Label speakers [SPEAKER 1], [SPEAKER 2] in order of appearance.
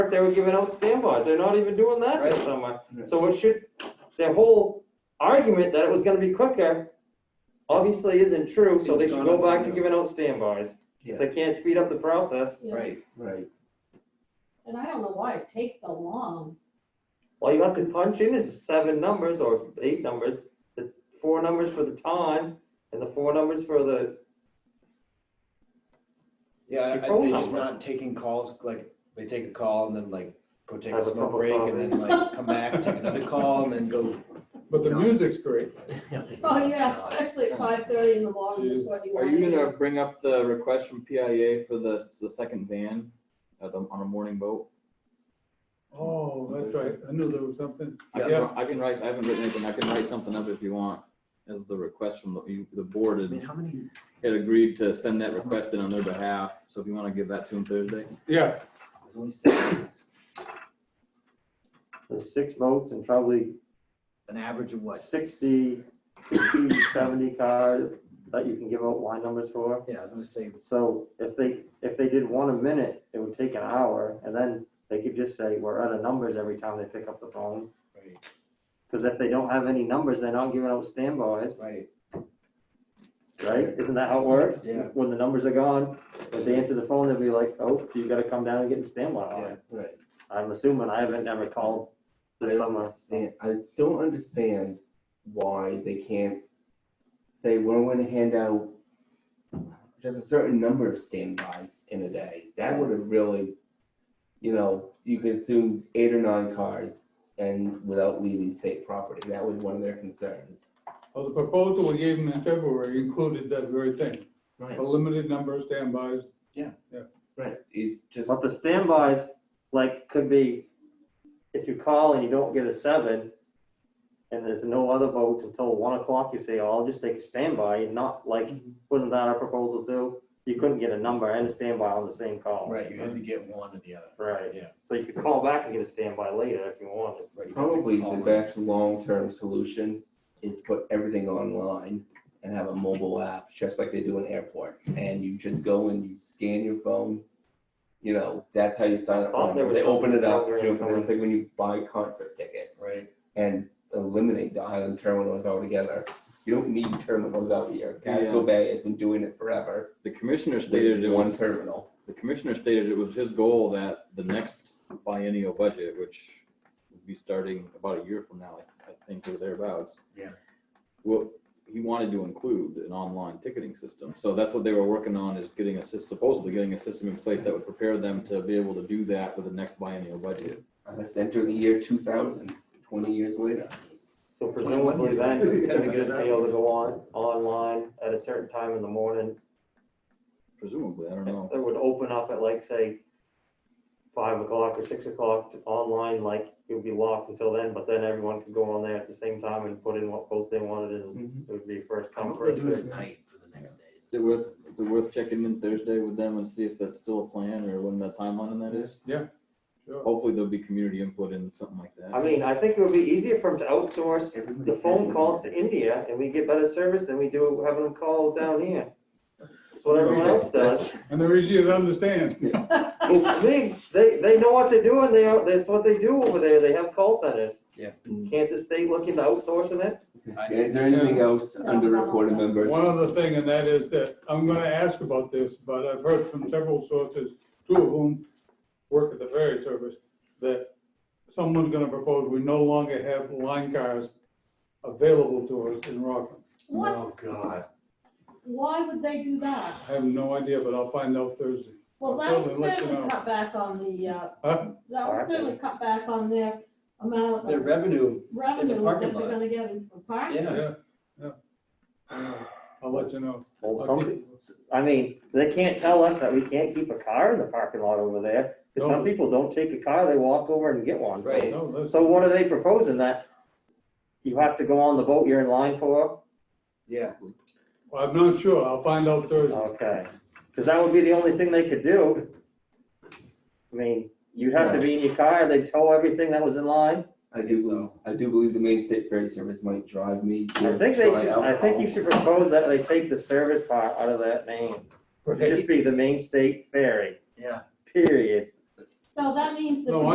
[SPEAKER 1] they were giving out standbys. They're not even doing that this
[SPEAKER 2] Right.
[SPEAKER 1] summer. So it should, their whole argument that it was gonna be quicker obviously isn't true, so they
[SPEAKER 2] It's
[SPEAKER 1] should
[SPEAKER 2] not
[SPEAKER 1] go
[SPEAKER 2] up
[SPEAKER 1] back to
[SPEAKER 2] there.
[SPEAKER 1] giving out standbys.
[SPEAKER 2] Yeah.
[SPEAKER 1] If they can't speed up the process,
[SPEAKER 3] Yeah.
[SPEAKER 2] Right, right.
[SPEAKER 3] And I don't know why it takes so long.
[SPEAKER 1] all you have to punch in is seven numbers or eight numbers, the four numbers for the time and the four numbers for the,
[SPEAKER 2] Yeah,
[SPEAKER 1] Your
[SPEAKER 2] I-
[SPEAKER 1] phone
[SPEAKER 2] they just
[SPEAKER 1] number.
[SPEAKER 2] not taking calls, like, they take a call and then like, go take a
[SPEAKER 1] Have a cup
[SPEAKER 2] smoke
[SPEAKER 1] of
[SPEAKER 2] break and
[SPEAKER 1] coffee.
[SPEAKER 2] then like, come back, take another call and then go.
[SPEAKER 4] But the
[SPEAKER 2] No.
[SPEAKER 4] music's great.
[SPEAKER 3] Oh, yeah, especially at five thirty in the morning is what you
[SPEAKER 5] Are
[SPEAKER 3] want.
[SPEAKER 5] you gonna bring up the request from PIA for the, the second van at the, on a morning boat?
[SPEAKER 4] Oh, that's right. I knew there was something.
[SPEAKER 5] I can,
[SPEAKER 4] Yeah.
[SPEAKER 5] I can write, I haven't written anything, I can write something up if you want, as the request from the, you- the board
[SPEAKER 6] I mean,
[SPEAKER 5] had,
[SPEAKER 6] how many,
[SPEAKER 5] had agreed to send that request in on their behalf, so if you wanna give that to them Thursday.
[SPEAKER 4] Yeah,
[SPEAKER 1] the six votes and probably
[SPEAKER 2] An average of what?
[SPEAKER 1] 60, 60, 70 card that you can give out line numbers for.
[SPEAKER 2] Yeah, I was gonna say,
[SPEAKER 1] So if they, if they did one a minute, it would take an hour, and then they could just say, we're out of numbers every time they pick up the phone.
[SPEAKER 2] right,
[SPEAKER 1] Because if they don't have any numbers, they're not giving out standbys,
[SPEAKER 2] right,
[SPEAKER 1] right? Isn't that how it works?
[SPEAKER 2] Yeah.
[SPEAKER 1] When the numbers are gone, if they answer the phone, they'll be like, oh, you gotta come down and get a standby
[SPEAKER 2] yeah,
[SPEAKER 1] on.
[SPEAKER 7] Right.
[SPEAKER 1] I'm assuming, I haven't ever called this
[SPEAKER 7] I don't
[SPEAKER 1] summer.
[SPEAKER 7] understand- I don't understand why they can't say, we're going to hand out just a certain number of standbys in a day. That would have really, you know, you could assume eight or nine cars and without leaving state property. That was one of their concerns.
[SPEAKER 4] well, the proposal we gave them in February included that very thing,
[SPEAKER 7] Right,
[SPEAKER 4] a limited number of standbys.
[SPEAKER 7] right. It just.
[SPEAKER 1] But the standbys, like, could be, if you call and you don't get a seven, and there's no other votes until one o'clock, you say, oh, I'll just take a standby, and not, like,
[SPEAKER 2] Mm-hmm.
[SPEAKER 1] wasn't that our proposal too? You couldn't get a number and a standby on the same call.
[SPEAKER 2] right, you had to get one or the other.
[SPEAKER 1] Right,
[SPEAKER 2] Yeah.
[SPEAKER 1] so you could call back and get a standby later if you wanted.
[SPEAKER 2] right, you had to
[SPEAKER 7] Probably
[SPEAKER 2] call
[SPEAKER 7] the
[SPEAKER 2] in.
[SPEAKER 7] best long-term solution is put everything online and have a mobile app, just like they do in airports. And you just go and you scan your phone. You know, that's how you sign up.
[SPEAKER 1] Thought
[SPEAKER 7] for
[SPEAKER 1] Oh, there
[SPEAKER 7] them.
[SPEAKER 1] was
[SPEAKER 7] They open it up,
[SPEAKER 1] something
[SPEAKER 7] you know,
[SPEAKER 1] coming.
[SPEAKER 7] it's like when you buy concert tickets
[SPEAKER 2] Right,
[SPEAKER 7] and eliminate the island terminals altogether. You don't need terminals out here. Casco
[SPEAKER 5] Yeah.
[SPEAKER 7] Bay has been doing it forever.
[SPEAKER 5] The commissioner stated it
[SPEAKER 7] with One
[SPEAKER 5] was,
[SPEAKER 7] terminal.
[SPEAKER 5] the commissioner stated it was his goal that the next biennial budget, which would be starting about a year from now, I think, or thereabouts.
[SPEAKER 2] Yeah.
[SPEAKER 5] Well, he wanted to include an online ticketing system, so that's what they were working on, is getting a, sys- supposedly getting a system in place that would prepare them to be able to do that with the next biennial budget.
[SPEAKER 7] Uh, Let's enter the year 2000, 20 years later.
[SPEAKER 1] So
[SPEAKER 2] Twenty-one
[SPEAKER 1] presumably
[SPEAKER 2] years
[SPEAKER 1] then,
[SPEAKER 2] later.
[SPEAKER 1] you could just be able to go on, online at a certain time in the morning,
[SPEAKER 5] Presumably, I don't know.
[SPEAKER 1] It would open up at like, say, five o'clock or six o'clock to- online, like it would be locked until then, but then everyone could go on there at the same time and put in what vote they wanted and
[SPEAKER 7] Mhm.
[SPEAKER 1] it would be first
[SPEAKER 2] Mm-hmm. I
[SPEAKER 1] come,
[SPEAKER 2] hope they
[SPEAKER 1] first
[SPEAKER 2] do it at
[SPEAKER 1] served.
[SPEAKER 2] night for the next days.
[SPEAKER 5] Is it worth, is it worth checking in Thursday with them and see if that's still a plan or when the timeline on that is?
[SPEAKER 4] Sure.
[SPEAKER 5] Hopefully there'll be community input and something like that.
[SPEAKER 1] I mean, I think it would be easier for them to outsource
[SPEAKER 7] Everybody
[SPEAKER 1] the phone
[SPEAKER 7] has-
[SPEAKER 1] calls to India and we get better service than we do having them call down here. That's what everyone else does.
[SPEAKER 4] And they're easier to understand.
[SPEAKER 1] Well, I mean, they, they know what they're doing, they, are- that's what they do over there, they have call centers.
[SPEAKER 2] Yeah.
[SPEAKER 1] Can't the state look into outsourcing it?
[SPEAKER 2] I-
[SPEAKER 7] Is there anything else under reported members?
[SPEAKER 4] One other thing, and that is that I'm gonna ask about this, but I've heard from several sources, two of whom work at the ferry service, that someone's gonna propose we no longer have line cars available to us in Rockland.
[SPEAKER 1] Oh,
[SPEAKER 3] What?
[SPEAKER 2] God.
[SPEAKER 3] Why would they do that?
[SPEAKER 4] I have no idea, but I'll find out Thursday.
[SPEAKER 3] Well, that
[SPEAKER 4] Well,
[SPEAKER 3] would
[SPEAKER 4] Phil, I'd like to
[SPEAKER 3] certainly
[SPEAKER 4] know.
[SPEAKER 3] cut back on the, uh,
[SPEAKER 4] Huh?
[SPEAKER 3] that would
[SPEAKER 1] Parking.
[SPEAKER 3] certainly cut back on their amount
[SPEAKER 2] Their
[SPEAKER 3] of
[SPEAKER 2] revenue,
[SPEAKER 3] revenue that
[SPEAKER 2] parking
[SPEAKER 3] they're
[SPEAKER 2] lot.
[SPEAKER 3] gonna get in from parking.
[SPEAKER 2] yeah,
[SPEAKER 4] Yeah, yeah. I'll let you know.
[SPEAKER 1] Well, some, I mean, they can't tell us that we can't keep a car in the parking lot over there, because some
[SPEAKER 4] No.
[SPEAKER 1] people don't take a car, they walk over and get one. So-
[SPEAKER 2] Right.
[SPEAKER 4] No, that's-
[SPEAKER 1] So what are they proposing, that you have to go on the boat you're in line for?
[SPEAKER 2] yeah,
[SPEAKER 4] Well, I'm not sure. I'll find out Thursday.
[SPEAKER 1] Okay, because that would be the only thing they could do. I mean, you have to be in your car, they tow everything that was in line.
[SPEAKER 7] I
[SPEAKER 2] Guess
[SPEAKER 7] do, believe- I do believe the Maine State Ferry Service might drive me
[SPEAKER 1] I
[SPEAKER 7] to
[SPEAKER 1] think they
[SPEAKER 7] try
[SPEAKER 1] should, I think you should propose that they take the service part out of that name. It should
[SPEAKER 2] right,
[SPEAKER 1] just be the main state ferry,
[SPEAKER 2] yeah.
[SPEAKER 1] period.
[SPEAKER 7] alcohol.
[SPEAKER 3] So that means that.
[SPEAKER 4] No,
[SPEAKER 3] we-